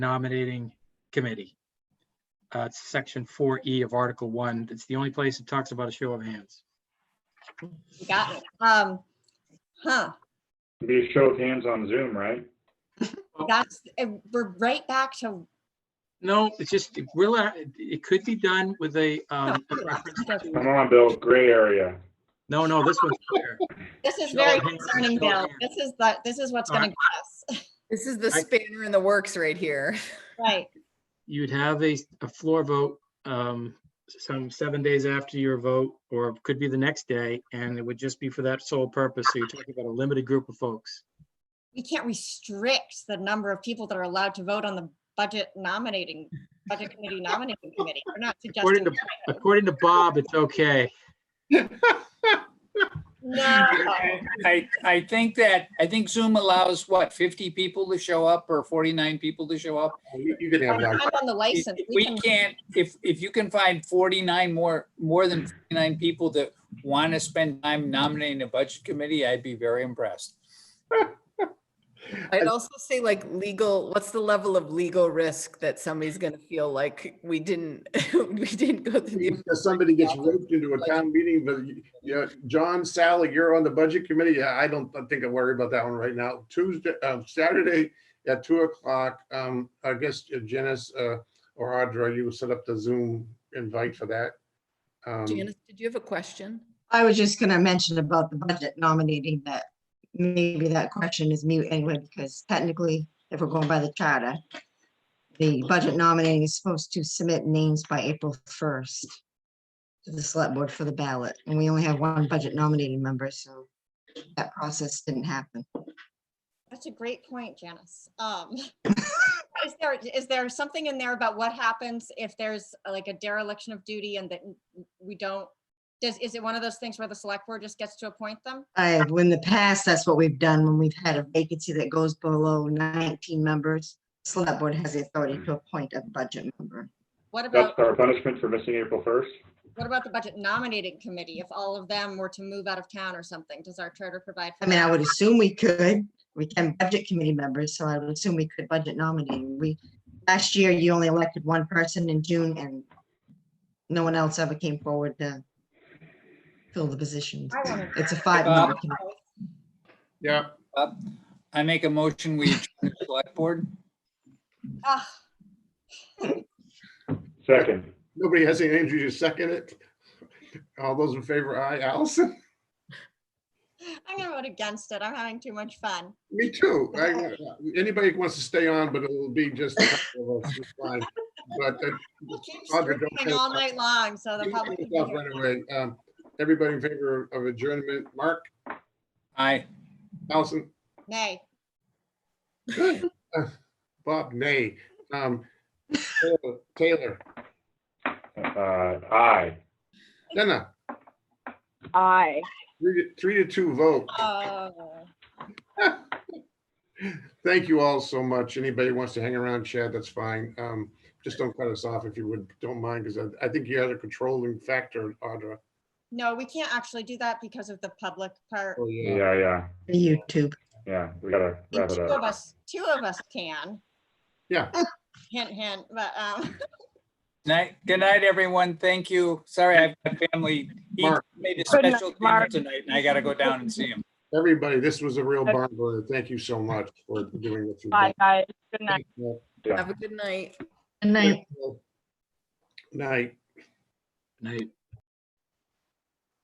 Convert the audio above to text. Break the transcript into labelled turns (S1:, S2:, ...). S1: nominating committee. Uh, it's section four E of Article One. It's the only place it talks about a show of hands.
S2: You Got it. Um, huh,
S3: Be a show of hands on Zoom, right?
S1: Oh.
S2: that's, and we're right back to,
S1: No, it's just, will, uh, it could be done with a, um, a reference
S3: Come
S1: to-
S3: on, Bill, gray area.
S1: no, no, this one's clear.
S2: this is
S1: Show
S2: very
S1: of hands,
S2: concerning,
S1: show of
S2: Bill.
S1: hands.
S2: This is the, this is what's
S1: All
S2: gonna get us,
S4: This is the
S1: I-
S4: spanner in the works right here.
S2: right?
S1: You'd have a, a floor vote, um, some seven days after your vote, or it could be the next day, and it would just be for that sole purpose. So you're talking about a limited group of folks.
S2: We can't restrict the number of people that are allowed to vote on the budget nominating, budget committee nominating committee. We're not
S1: According
S2: suggesting.
S1: to, according to Bob, it's okay.
S2: No,
S5: Oh,
S6: I, I think that, I think Zoom allows, what, 50 people to show up or 49 people to show up?
S5: You you can have
S2: I'm
S5: that.
S2: on the
S6: If
S2: license.
S6: We can't, if, if you can find 49 more, more than 49 people that want to spend time nominating a budget committee, I'd be very impressed.
S4: I'd also say like legal, what's the level of legal risk that somebody's gonna feel like we didn't, we didn't go through the.
S5: If somebody gets roped into a town meeting, but you- you, know, John, Sally, you're on the budget committee. Yeah, I don't think I worry about that one right now. Tuesday, uh, Saturday at two o'clock, um, I guess uh, Janice, uh, or Audra, you set up the Zoom invite for that. Um,
S4: Janice, did you have a question?
S7: I was just gonna mention about the budget nominating that maybe that question is mute anyway, because technically, if we're going by the charter, the budget nominating is supposed to submit names by April first to the select board for the ballot, and we only have one budget nominating member, so that process didn't happen.
S2: That's a great point, Janice. Um, is there, is there something in there about what happens if there's uh, like a dereliction of duty and that we don't? Does, is it one of those things where the select board just gets to appoint them?
S7: I, in the past, that's what we've done when we've had a vacancy that goes below nineteen members. Select board has the authority to appoint a budget member.
S2: What
S3: That's
S2: about,
S3: our punishment for missing April first.
S2: what about the budget nominating committee? If all of them were to move out of town or something, does our charter provide? for
S7: I mean, I
S2: that?
S7: would assume we could, we can budget committee members, so I would assume we could budget nominate. We, last year, you only elected one person in June and no one else ever came forward to fill the positions.
S2: I wanna-
S7: It's a five. member committee.
S5: Yeah,
S6: I make a motion, we adjourn the select board.
S2: Ah,
S3: Second,
S5: nobody has any energy to second it. All those in favor, aye. Allison?
S2: I'm gonna vote against it. I'm having too much fun.
S5: Me too. I- uh, Anybody who wants to stay on, but it'll be just. a couple of us, it's fine. But uh,
S2: We'll keep
S5: Audra, don't
S2: screaming
S5: feel
S2: all
S5: bad.
S2: night long, so the
S5: You
S2: public.
S5: can
S2: can
S5: stop
S2: hear
S5: right
S2: it.
S5: away. Um, Everybody in favor of adjournment, Mark,
S6: Aye.
S5: Allison,
S2: Nay.
S5: Bob, nay. Um, Taylor- Taylor,
S3: uh, aye.
S5: Jenna. Aye. Three to- three to two vote.
S2: Oh.
S5: Thank you all so much. Anybody who wants to hang around, Chad, that's fine. Um, Just don't cut us off if you would, don't mind, because I, I think you had a controlling factor, Audra.
S2: No, we can't actually do that because of the public part.
S5: Oh, yeah.
S3: Yeah, yeah,
S7: YouTube.
S3: yeah. We gotta
S2: And
S3: wrap it
S2: Two of
S3: up.
S2: us, two of us can.
S5: Yeah.
S2: Hint, hint, but, um,
S6: Night, good night, everyone. Thank you. Sorry, I've got family. He
S5: Mark.
S6: made a special dinner tonight and I gotta go down and see him.
S5: Everybody, this was a real barn burner. Thank you so much for doing what you did.
S8: Bye, guys. Good night.
S3: Yeah.
S4: Have a good night.
S7: Good night.
S5: Night.
S1: Night.